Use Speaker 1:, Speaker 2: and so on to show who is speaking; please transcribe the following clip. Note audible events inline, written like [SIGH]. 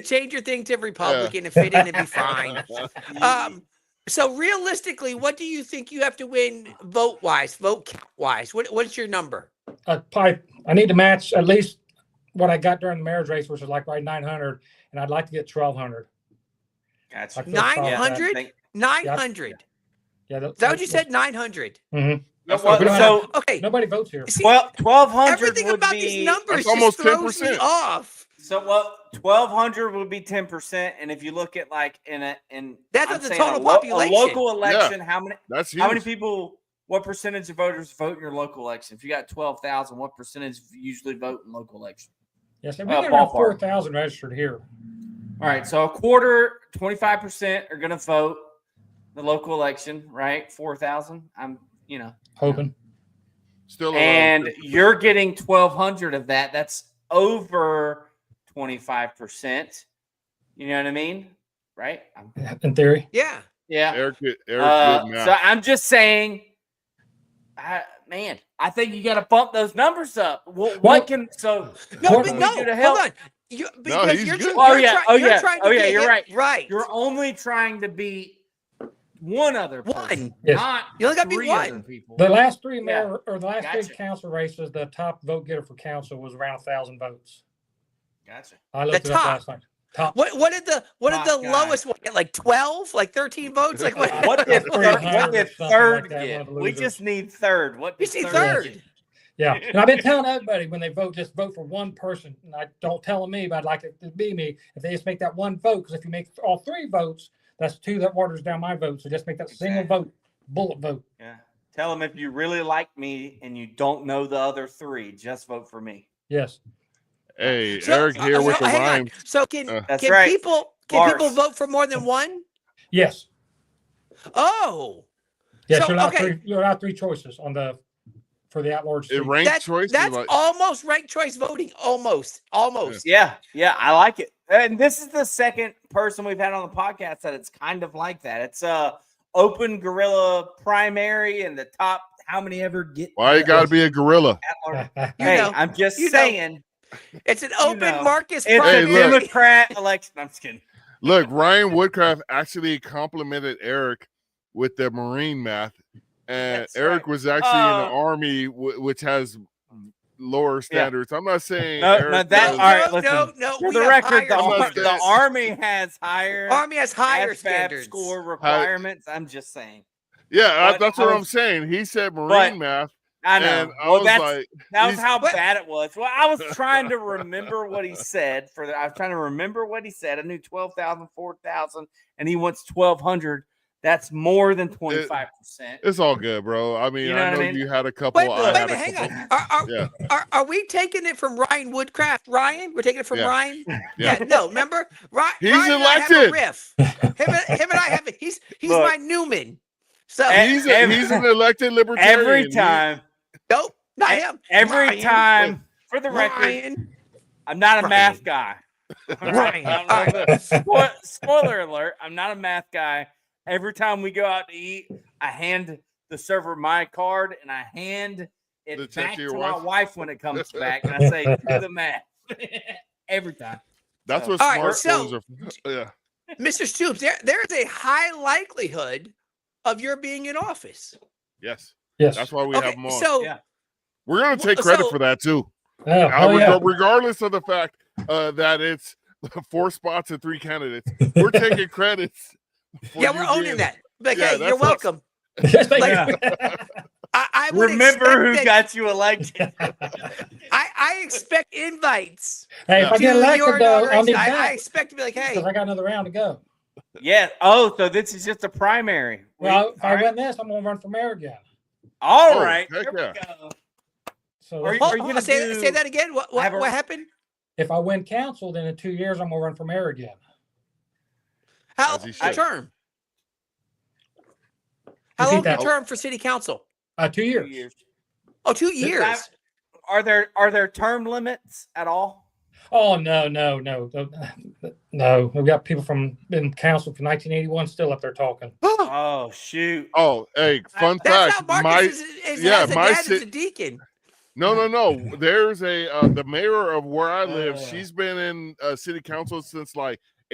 Speaker 1: change your thing to Republican and fit in
Speaker 2: [LAUGHS]
Speaker 1: and be
Speaker 3: [LAUGHS]
Speaker 1: fine. Um, so realistically, what do you think you have to win vote wise, vote count wise? What, what's your number?
Speaker 4: I uh, probably I need to match at least what I got during the marriage race, which is like right nine hundred, and I'd like to get twelve hundred.
Speaker 3: Gotcha.
Speaker 4: I feel proud of that.
Speaker 1: 900?
Speaker 3: Thank-
Speaker 1: 900
Speaker 4: Yeah,
Speaker 1: Is that what you said? 900.
Speaker 3: No,
Speaker 2: That's not
Speaker 3: well,
Speaker 4: bad.
Speaker 3: So
Speaker 1: Okay.
Speaker 4: Nobody votes here.
Speaker 1: See,
Speaker 3: well, twelve hundred
Speaker 1: everything
Speaker 3: would
Speaker 1: about
Speaker 3: be
Speaker 1: these numbers
Speaker 2: That's
Speaker 1: just
Speaker 2: almost
Speaker 1: throws me
Speaker 2: 10%.
Speaker 1: off.
Speaker 3: so. Well, twelve hundred would be ten percent, and if you look at like in a in
Speaker 1: That's
Speaker 3: I'm
Speaker 1: of the
Speaker 3: saying a
Speaker 1: total
Speaker 3: lo-
Speaker 1: population.
Speaker 3: a local election, how many
Speaker 2: That's huge.
Speaker 3: how many people? What percentage of voters vote in your local election? If you got twelve thousand, what percentage usually vote in local election?
Speaker 4: Yes, we
Speaker 3: Uh,
Speaker 4: got
Speaker 3: ballpark.
Speaker 4: about four thousand registered here.
Speaker 3: All right, so a quarter, twenty five percent are going to vote the local election, right? Four thousand. I'm, you know,
Speaker 4: Hoping.
Speaker 2: Still around
Speaker 3: and
Speaker 2: 50.
Speaker 3: you're getting 1200 of that that's over 25% you know what i mean right I'm-
Speaker 4: In theory.
Speaker 1: Yeah.
Speaker 3: yeah
Speaker 2: Eric, did- Eric
Speaker 3: Uh,
Speaker 2: did math.
Speaker 3: so i'm just saying I, man i think you got to bump those numbers up what,
Speaker 4: Well-
Speaker 3: what can so
Speaker 1: No,
Speaker 4: What
Speaker 1: but
Speaker 4: can we
Speaker 1: no.
Speaker 3: do to
Speaker 1: Hold
Speaker 3: help?
Speaker 1: on. You, because
Speaker 2: he's
Speaker 1: you're,
Speaker 2: good.
Speaker 1: try-
Speaker 3: Oh,
Speaker 1: you're
Speaker 3: yeah.
Speaker 1: try-
Speaker 3: Oh,
Speaker 1: you're
Speaker 3: yeah.
Speaker 1: trying
Speaker 3: Oh,
Speaker 1: to
Speaker 3: yeah,
Speaker 1: get
Speaker 3: you're
Speaker 1: hit-
Speaker 3: right.
Speaker 1: Right.
Speaker 3: you're only trying to beat one other person,
Speaker 1: one.
Speaker 4: Yes.
Speaker 3: not
Speaker 1: You only got to be
Speaker 3: three
Speaker 1: one.
Speaker 3: other people
Speaker 4: The last three
Speaker 3: Yeah.
Speaker 4: mayor or the last
Speaker 3: Gotcha.
Speaker 4: three council races, the top vote getter for council was around a thousand votes.
Speaker 3: gotcha
Speaker 4: I looked
Speaker 1: The
Speaker 4: it up
Speaker 1: top.
Speaker 4: last night. Top.
Speaker 1: What what did the what did
Speaker 3: Top
Speaker 1: the
Speaker 3: guy.
Speaker 1: lowest one get? Like twelve? Like thirteen votes? Like [LAUGHS] what?
Speaker 3: what did third,
Speaker 4: 300
Speaker 3: what did
Speaker 4: or something like
Speaker 3: third
Speaker 4: that, one
Speaker 3: get?
Speaker 4: of the
Speaker 3: We
Speaker 4: losers.
Speaker 3: just need third. What
Speaker 1: You
Speaker 3: did
Speaker 1: see
Speaker 3: third?
Speaker 1: third.
Speaker 3: get?
Speaker 4: Yeah, and I've been telling everybody when they vote, just vote for one person. And I don't tell them me, but I'd like it to be me if they just make that one vote. Because if you make all three votes, that's two that waters down my vote. So just make that single
Speaker 3: Exactly.
Speaker 4: vote, bullet vote.
Speaker 3: Yeah. Tell them if you really like me and you don't know the other three, just vote for me.
Speaker 4: Yes,
Speaker 2: hey,
Speaker 1: So-
Speaker 2: Eric here
Speaker 1: uh,
Speaker 2: with
Speaker 1: so-
Speaker 2: the
Speaker 1: hang on.
Speaker 2: rhyme.
Speaker 1: So can
Speaker 2: Uh,
Speaker 3: That's
Speaker 1: can
Speaker 3: right.
Speaker 1: people can
Speaker 3: Lars.
Speaker 1: people vote for more than one?
Speaker 4: yes,
Speaker 1: Oh,
Speaker 4: yes.
Speaker 1: So,
Speaker 4: you're allowed
Speaker 1: okay.
Speaker 4: three. You're allowed three choices on the for the at large.
Speaker 2: It
Speaker 4: seat.
Speaker 2: ranked
Speaker 1: that's
Speaker 2: choices.
Speaker 1: that's
Speaker 2: like,
Speaker 1: almost ranked choice voting. Almost, almost.
Speaker 3: Yeah. Yeah. I like it. And this is the second person we've had on the podcast that it's kind of like that. It's a open gorilla primary and the top how many ever get
Speaker 2: why you got to be a gorilla?
Speaker 3: at large.
Speaker 1: You
Speaker 3: Hey,
Speaker 1: know.
Speaker 3: I'm just
Speaker 1: You know.
Speaker 3: saying
Speaker 1: It's an open
Speaker 3: know,
Speaker 1: Marcus
Speaker 3: it's
Speaker 2: Hey,
Speaker 3: a
Speaker 2: look.
Speaker 1: primary.
Speaker 3: Democrat election. I'm just kidding.
Speaker 2: Look, Ryan Woodcraft actually complimented Eric with the Marine math, and
Speaker 3: That's
Speaker 2: Eric
Speaker 3: right.
Speaker 2: was actually in
Speaker 3: Uh,
Speaker 2: the Army, w- which has lower standards. I'm not saying
Speaker 3: No,
Speaker 2: Eric
Speaker 3: no, that-
Speaker 2: does-
Speaker 3: all right,
Speaker 1: no, no,
Speaker 3: listen.
Speaker 1: no.
Speaker 3: For
Speaker 1: we
Speaker 3: the
Speaker 1: have
Speaker 3: record, the,
Speaker 1: higher
Speaker 2: Almost
Speaker 3: Ar-
Speaker 1: standards.
Speaker 3: the
Speaker 2: there.
Speaker 3: army has higher
Speaker 1: army has higher
Speaker 3: AFAB
Speaker 1: standards.
Speaker 3: score requirements. I'm just saying.
Speaker 2: yeah, I,
Speaker 3: but
Speaker 2: that's what
Speaker 3: I
Speaker 2: I'm
Speaker 3: was-
Speaker 2: saying. He said Marine
Speaker 3: but-
Speaker 2: math,
Speaker 3: I
Speaker 2: and
Speaker 3: know.
Speaker 2: I
Speaker 3: well,
Speaker 2: was
Speaker 3: that's
Speaker 2: like,
Speaker 3: That was
Speaker 2: He's-
Speaker 3: how
Speaker 1: But-
Speaker 3: bad it was. Well, I was trying
Speaker 2: [LAUGHS]
Speaker 3: to remember what he said for the, I was trying to remember what he said. I knew 12,000, 4,000, and he wants 1,200. That's more than 25%.
Speaker 2: it's all good, bro. I mean,
Speaker 3: You know
Speaker 2: I
Speaker 3: what I
Speaker 2: know
Speaker 3: mean?
Speaker 2: you had a couple.
Speaker 1: Wait,
Speaker 2: I
Speaker 1: wait,
Speaker 2: had
Speaker 1: a minute,
Speaker 2: a
Speaker 1: hang
Speaker 2: couple.
Speaker 1: on. Are, are,
Speaker 2: Yeah.
Speaker 1: are, are we taking it from Ryan Woodcraft? Ryan, we're taking it from
Speaker 2: Yeah.
Speaker 1: Ryan. [LAUGHS] Yeah.
Speaker 2: Yeah.
Speaker 1: no, remember, Ryan.
Speaker 2: He's
Speaker 1: Ryan and I have a
Speaker 2: elected.
Speaker 1: riff. Him, and- him and I have. a- He's he's
Speaker 3: Look.
Speaker 1: my Newman. So
Speaker 3: And-
Speaker 2: He's, a,
Speaker 3: E- every-
Speaker 2: he's an elected libertarian.
Speaker 3: Every
Speaker 2: He-
Speaker 3: time,
Speaker 1: nope, not
Speaker 3: and-
Speaker 1: him.
Speaker 3: every
Speaker 1: Ryan,
Speaker 3: time, for the record,
Speaker 1: Ryan.
Speaker 3: I'm not a math guy.
Speaker 1: [LAUGHS] Ryan.
Speaker 3: I'm
Speaker 1: All
Speaker 3: not a- Spoil- spoiler alert, I'm not a math guy. Every time we go out to eat, I hand the server my card and I hand it
Speaker 2: The check
Speaker 3: back
Speaker 2: to
Speaker 3: to,
Speaker 2: your
Speaker 3: my
Speaker 2: wife?
Speaker 3: wife when it
Speaker 2: [LAUGHS]
Speaker 3: comes back. And I say, do the math. [LAUGHS] Every time.
Speaker 2: That's what
Speaker 1: All right,
Speaker 2: smartphones
Speaker 1: so-
Speaker 2: are. uh, Yeah.
Speaker 1: Mr. Stoops, there, there is a high likelihood of your being in office.
Speaker 2: Yes.
Speaker 4: [LAUGHS] Yes.
Speaker 2: That's why we have them on.
Speaker 1: so
Speaker 3: Yeah.
Speaker 2: We're gonna
Speaker 1: Wh-
Speaker 2: take credit
Speaker 1: so-
Speaker 2: for that too.
Speaker 4: Oh,
Speaker 2: I
Speaker 4: hell
Speaker 2: would
Speaker 4: yeah.
Speaker 2: go- regardless of the fact uh, that it's [LAUGHS] four spots and three candidates, we're
Speaker 4: [LAUGHS]
Speaker 2: taking credits. for
Speaker 1: yeah,
Speaker 2: you
Speaker 1: we're owning
Speaker 2: being-
Speaker 1: that. Like,
Speaker 2: Yeah,
Speaker 1: hey,
Speaker 2: that's
Speaker 1: you're
Speaker 2: what-
Speaker 1: welcome.
Speaker 4: [LAUGHS] Yes, they
Speaker 3: Yeah.
Speaker 4: do.
Speaker 1: I, I would
Speaker 3: Remember who
Speaker 1: expect that-
Speaker 3: got
Speaker 1: [LAUGHS]
Speaker 3: you elected.
Speaker 1: I, I expect invites
Speaker 4: [LAUGHS] Hey, if I
Speaker 1: to [LAUGHS]
Speaker 4: get
Speaker 1: your
Speaker 4: elected, though, I'll be
Speaker 1: inauguration. I, I
Speaker 4: back
Speaker 1: expect to be like, hey,
Speaker 4: because I got another round to go.
Speaker 3: yeah. Oh, so this is just a primary. We-
Speaker 4: Well, if
Speaker 3: all
Speaker 4: I
Speaker 3: right.
Speaker 4: win this, I'm gonna run for mayor again.
Speaker 3: All
Speaker 2: Oh,
Speaker 3: right.
Speaker 2: heck
Speaker 3: Here we
Speaker 2: yeah.
Speaker 3: go.
Speaker 4: So
Speaker 3: Are you-
Speaker 1: hold-
Speaker 3: gonna
Speaker 1: hold on, say,
Speaker 3: do-
Speaker 1: say that again. What what,
Speaker 3: have a-
Speaker 1: what happened?
Speaker 4: if I win council, then in two years I'm gonna run for mayor again.
Speaker 1: How
Speaker 2: As he
Speaker 1: a
Speaker 2: should.
Speaker 1: term? How
Speaker 4: Repeat
Speaker 1: long your
Speaker 4: that.
Speaker 1: term for city council?
Speaker 4: Uh, two
Speaker 3: Two
Speaker 4: years.
Speaker 3: years.
Speaker 1: Oh, two
Speaker 3: Does
Speaker 1: years.
Speaker 3: that- Are there are there term limits at all?
Speaker 4: Oh no, no, no, no, [SIGHS] no. We've got people from in council from 1981 still up there talking.
Speaker 1: Oh,
Speaker 3: Oh shoot.
Speaker 2: Oh, hey, fun
Speaker 1: That's how
Speaker 2: fact.
Speaker 1: Marcus
Speaker 2: My
Speaker 1: is, is
Speaker 2: yeah,
Speaker 1: as a
Speaker 2: my
Speaker 1: dad is
Speaker 2: ci-
Speaker 1: a deacon.
Speaker 2: No, no, no. There's a uh, the mayor of where I live.
Speaker 3: Uh.
Speaker 2: she's been in uh, city council since like